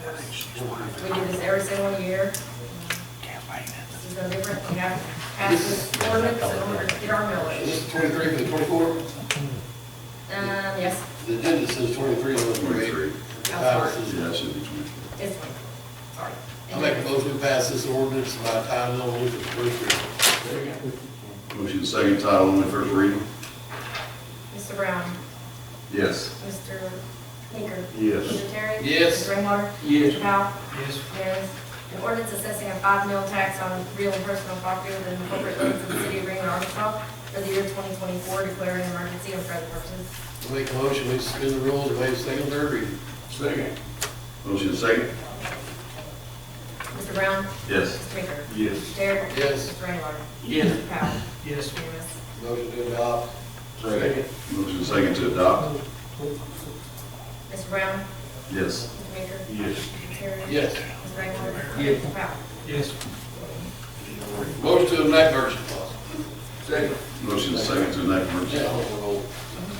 We do this every single year. This is no different. We have passed this ordinance in order to get our millage. This is twenty-three for the twenty-four? Um, yes, The agenda says twenty-three on the Twenty-three. parade. The title says- Yeah, it should be twenty-four. it's one. Sorry. I make a motion to pass this ordinance by title only for the first reading. Motion second title only, first reading? Mr. Brown. Yes. Mr. Baker. Yes. Mr. Terry. Yes. Mr. Rainwater. Yes. Mr. Powell. Yes. Yes. An ordinance assessing a five mil tax on real and personal property within the corporate limits of the city of Greenwood, Arkansas for the year 2024, declaring an emergency and for other purposes. I make a motion to suspend the rules and waive second, and third reading. Second. Motion second? Mr. Brown. Yes. Mr. Baker. Yes. Terry. Yes. Mr. Rainwater. Yes. Mr. Powell. Yes. Unanimous. Motion to adopt. Second. Motion second to adopt? Mr. Brown. Yes. Mr. Baker. Yes. Mr. Terry. Yes. Mr. Rainwater. Yes. Mr. Powell. Yes. Motion to enact emergency clause. Second. Motion second to enact Yeah, emergency. I'm gonna roll.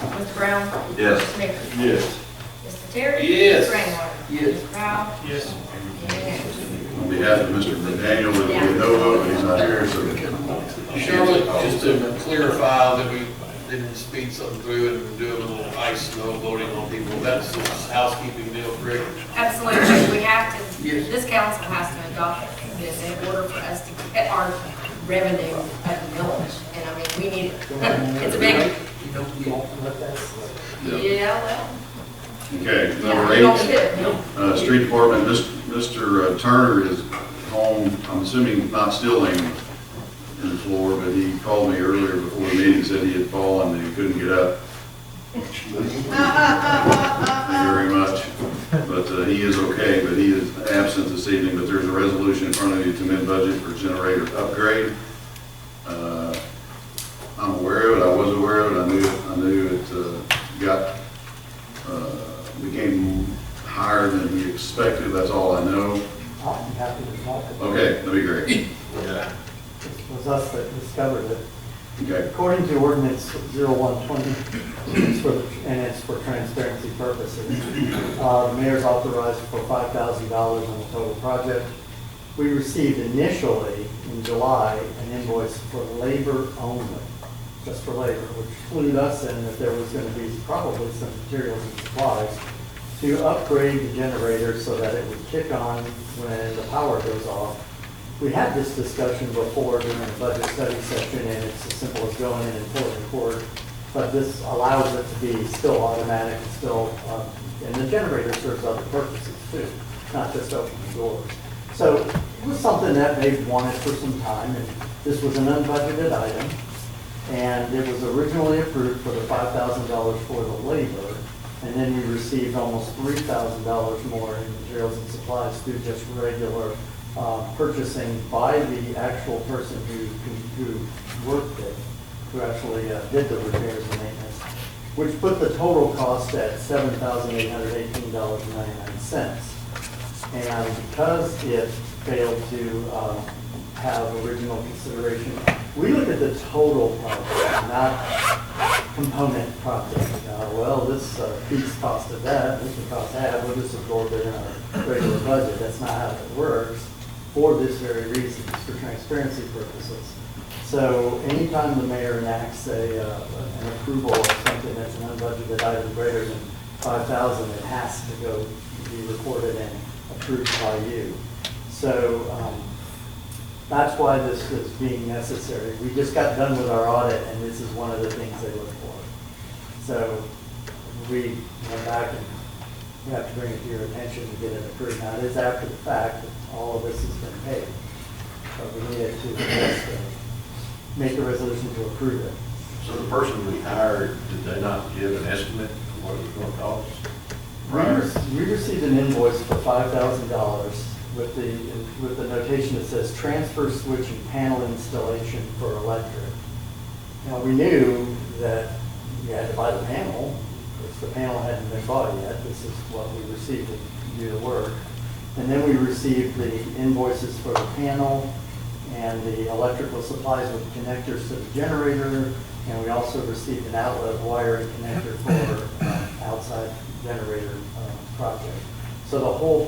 Mr. Brown. Yes. Mr. Baker. Yes. Mr. Terry. Yes. Mr. Rainwater. Yes. Mr. Powell. Yes. Unanimous. On behalf of Mr. McDaniel, there will be no vote, he's not here, so Shirley, just to clarify that we didn't speed something through and we're doing a little ice snow loading on people, that's the housekeeping deal, correct? Absolutely, we have to, Yes. this council has to adopt this in order for us to get our revenue at the village, and I mean, we need it. It's a big, yeah, well, Okay, yeah, number we don't eight, need it. uh, street department, Mis- Mr. Turner is home, I'm assuming not still laying in the floor, but he called me earlier before the meeting, said he had fallen and he couldn't get up. Very much, but uh, he is okay, but he is absent this evening, but there's a resolution in front of you to amend budget for generator upgrade. Uh, I'm aware of it, I was aware of it, I knew, I knew it uh, got, uh, became higher than we expected, that's all I know. I'm happy to talk. Okay, that'd be great. It was us that discovered it. Okay, According to ordinance 0120, it's for- and it's for transparency purposes, uh, the mayor's authorized for $5,000 on the total project. We received initially in July an invoice for labor only, just for labor, which clued us in that there was going to be probably some materials and supplies to upgrade the generator so that it would kick on when the power goes off we had this discussion before during the budget study session, and it's as simple as going in and pulling the cord. But this allows it to be still automatic and still, um, and the generator serves other purposes too, not just opening doors. So it was something that they wanted for some time, and this was an unbudgeted item. And it was originally approved for the five thousand dollars for the labor, and then we received almost three thousand dollars more in materials and supplies through just regular uh, purchasing by the actual person who, who worked it, who actually uh, did the repairs and maintenance, which put the total cost at seven thousand eight hundred eighteen dollars and ninety-nine cents. And because it failed to um, have original consideration, we look at the total project, not component project. Uh, Well, this uh, piece costed that, this would cost that, we'll just absorb it in our regular budget. That's not how it works for this very reason, it's for transparency purposes. So anytime the mayor enacts a, uh, an approval of something that's an unbudgeted item greater than five thousand, it has to go be recorded and approved by you. So, um, that's why this is being necessary. We just got done with our audit, and this is one of the things they look for. So we went back and we have to bring it to your attention to get it approved. Now, it is after the fact that all of this has been paid, but we needed to just, uh, make a resolution to approve it. So the person we hired, did they not give an estimate of what it was gonna cost? We rec- We received an invoice for five thousand dollars with the, with the notation that says transfer switch and panel installation for electric. Now, we knew that you had to buy the panel, because the panel hadn't been bought yet, this is what we received to do the work. And then we received the invoices for the panel and the electrical supplies with connectors to the generator, and we also received an outlet wire and connector for uh, outside generator uh, project. So the whole